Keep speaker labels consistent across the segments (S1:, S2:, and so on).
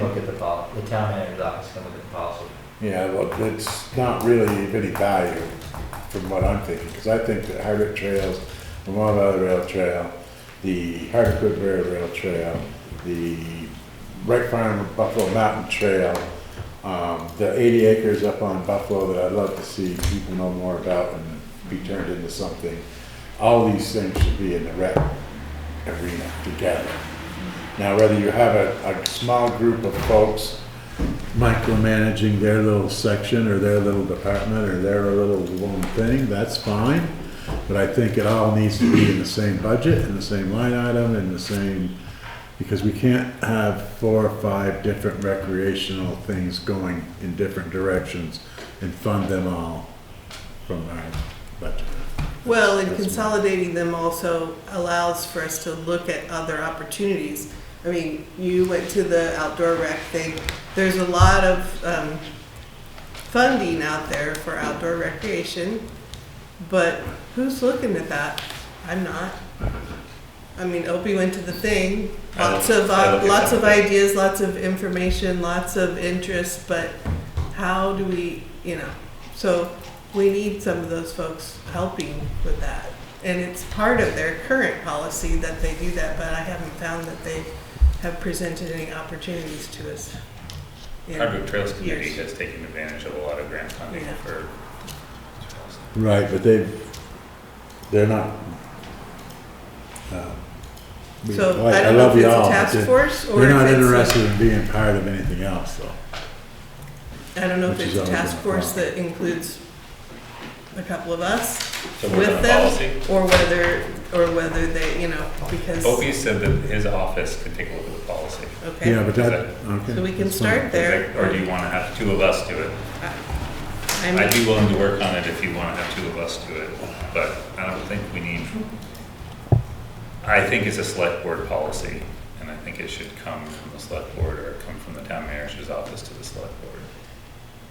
S1: Look at the pol, the town manager's office can look at the policy.
S2: Yeah, well, it's not really of any value from what I'm thinking, because I think that Hardwick Trails, Vermont Valley Rail Trail, the Hardwick Woodbury Rail Trail, the Wright Farm Buffalo Mountain Trail, um, the eighty acres up on Buffalo that I'd love to see people know more about and be turned into something. All these things should be in the rec arena together. Now, whether you have a, a small group of folks micromanaging their little section or their little department or their little one thing, that's fine. But I think it all needs to be in the same budget, in the same line item, in the same, because we can't have four or five different recreational things going in different directions and fund them all from our budget.
S3: Well, and
S2: That's-
S3: consolidating them also allows for us to look at other opportunities. I mean, you went to the outdoor rec thing. There's a lot of um, funding out there for outdoor recreation, but who's looking at that? I'm not. I mean, Opie went to the thing.
S1: I
S3: Lots
S1: don't-
S3: of
S1: I don't
S3: uh,
S1: get
S3: lots
S1: that.
S3: of ideas, lots of information, lots of interest, but how do we, you know? So we need some of those folks helping with that. And it's part of their current policy that they do that, but I haven't found that they have presented any opportunities to us. in-
S4: Hardwick Trails Committee
S3: Years.
S4: has taken advantage of a lot of grant funding
S3: Yeah.
S4: for trails.
S2: Right, but they, they're not. uh, we-
S3: So
S2: like,
S3: I don't know
S2: love
S3: if it's a
S2: y'all, but
S3: task
S2: they're-
S3: force or
S2: They're
S3: if
S2: not
S3: it's a-
S2: interested in being part of anything else, though.
S3: I don't know if
S2: Which
S3: it's
S2: is
S3: a
S2: always
S3: task
S2: been a
S3: force
S2: problem.
S3: that includes a couple of us
S4: So we're
S3: with
S4: on a policy.
S3: them, or whether, or whether they, you know, because,
S4: Opie said that his office could take a look at the policy.
S2: Yeah,
S3: okay.
S2: but that, okay.
S3: So we can
S2: that's fine.
S3: start there.
S4: Or do you want to have two of us do it? I'd
S3: I'm,
S4: be willing to work on it if you want to have two of us do it, but I don't think we need. I think it's a select board policy, and I think it should come from the select board or come from the town manager's office to the select board.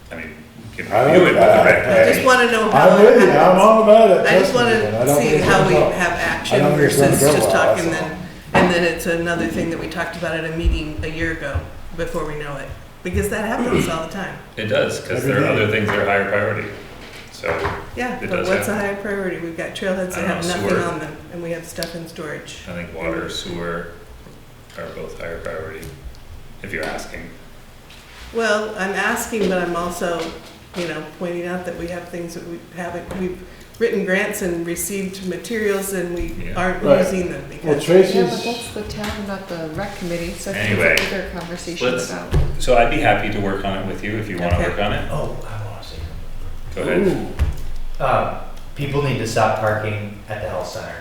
S4: I mean, you can
S2: I
S4: review
S2: like
S4: it with the
S2: that.
S4: rec.
S3: I just wanna know how
S2: I'm
S3: it
S2: with you, I'm
S3: happens.
S2: all about it.
S3: I just
S2: trust me, but I
S3: wanna
S2: don't
S3: see
S2: think
S3: how
S2: it's
S3: we
S2: all-
S3: have action
S2: don't think it's gonna
S3: versus
S2: go
S3: just
S2: well,
S3: talking
S2: that's all.
S3: then, and then it's another thing that we talked about at a meeting a year ago, before we know it. Because that happens all the time.
S4: It does, because
S2: Every
S4: there are
S2: day.
S4: other things that are higher priority, so.
S3: Yeah,
S4: It
S3: but
S4: does
S3: what's a higher priority? We've got trailheads that
S4: I don't
S3: have
S4: know,
S3: nothing
S4: sewer.
S3: on them, and we have stuff in storage.
S4: I think water, sewer are both higher priority, if you're asking.
S3: Well, I'm asking, but I'm also, you know, pointing out that we have things that we haven't, we've written grants and received materials and we
S4: Yeah.
S3: aren't
S2: Right.
S3: using them
S2: Well,
S3: because,
S5: Yeah, but that's
S2: Tracy's,
S5: the town, not the rec committee, so it's
S4: Anyway,
S5: a bigger conversation
S4: let's-
S5: about.
S4: So I'd be happy to work on it with you if you want to
S3: Okay.
S4: work on it.
S1: Oh, I wanna say something.
S4: Go ahead.
S1: Um, people need to stop parking at the health center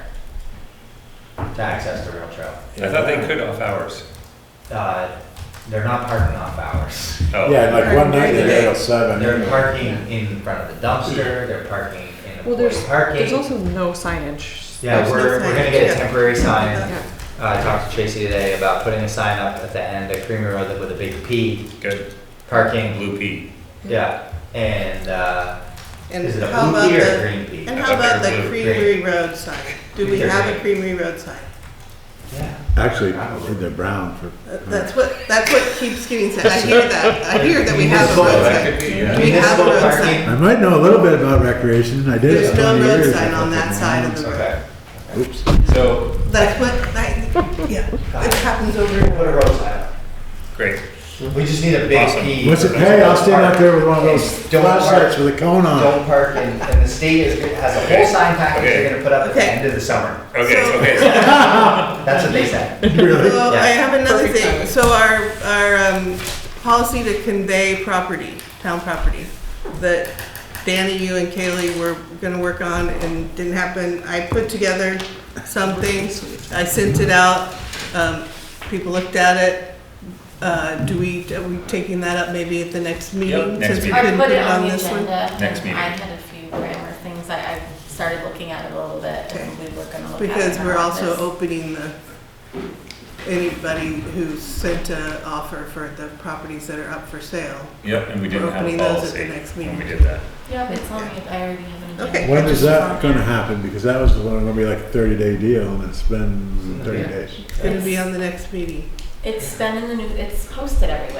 S1: to access the rail trail.
S4: I thought they could off hours.
S1: Uh, they're not parking off hours.
S4: Oh,
S2: yeah, like one night
S3: During the
S2: they
S3: day.
S2: got seven.
S1: They're parking in front of the dumpster, they're parking in
S5: Well,
S1: employee
S5: there's, there's
S1: parking.
S5: also no signage.
S1: Yeah,
S3: there's
S1: we're,
S3: no
S1: we're gonna
S3: signage,
S1: get a
S3: yeah.
S1: temporary sign.
S5: Yeah.
S1: Uh, I talked to Tracy today about putting a sign up at the end of Creamery Road that- with a big P,
S4: Good.
S1: parking,
S4: Blue pea.
S1: yeah. And, uh,
S3: and
S1: is it a blue
S3: how about
S1: P or a
S3: the,
S1: green P?
S3: and
S4: I
S3: how
S4: thought
S3: about
S4: they
S3: the
S4: were
S1: blue.
S3: Creamery Road sign? Do we
S1: They're
S3: have a
S1: green.
S3: Creamery Road sign?
S1: Yeah.
S2: Actually,
S1: Probably.
S2: they're brown for.
S3: Uh, That's what, that's what keeps getting said. I hear that. I hear that we have a
S1: Municipal
S3: road
S4: That
S3: sign.
S4: could be, yeah.
S3: We have
S1: Municipal
S3: a road
S1: parking.
S2: I might know a little bit about recreation, and I did it
S3: There's
S2: for
S3: no
S2: twenty years.
S3: road sign on that side of the road.
S1: Okay.
S2: Oops,
S4: So,
S3: That's what, that, yeah, it happens over and
S1: Put a
S3: over.
S1: road sign up.
S4: great.
S1: We just need a big
S4: Awesome.
S1: P.
S2: what's it, hey, I'll stand out there with one of those
S1: Don't park.
S2: flashlights with a cone on.
S1: Don't park, and, and the state is, has a whole
S4: Okay.
S1: sign package
S4: Okay.
S1: they're gonna put up at the
S3: Okay.
S1: end of the summer.
S4: Okay,
S3: So-
S4: okay. so-
S1: That's what they said.
S2: Really?
S3: Well, I
S1: Yeah.
S3: have another
S5: Perfect
S3: thing.
S5: timing.
S3: So our, our, um, policy to convey property, town property, that Danny, you and Kaylee were gonna work on and didn't happen. I put together something, I sent it out, um, people looked at it. Uh, do we, are we taking that up maybe at the next meeting?
S4: next
S3: since we
S4: meeting.
S6: I
S3: couldn't
S6: put it
S3: on
S6: on the
S3: this one?
S6: agenda.
S4: Next meeting.
S6: I had a few grammar things, I, I started looking at it a little bit, and we were gonna look at it.
S3: Because
S6: in our
S3: we're also
S6: office.
S3: opening the, anybody who sent an offer for the properties that are up for sale.
S4: Yep, and we didn't
S3: We're
S4: have a
S3: opening those at
S4: policy
S3: the next
S4: when we
S3: meeting.
S4: did that.
S6: Yeah, it's on, the- I already have an agenda.
S3: Okay.
S2: When is that gonna happen? Because that was gonna be like a thirty day deal and it's been thirty
S1: Yeah.
S2: days.
S3: It's gonna be on the next meeting.
S6: It's been in the new, it's posted everywhere.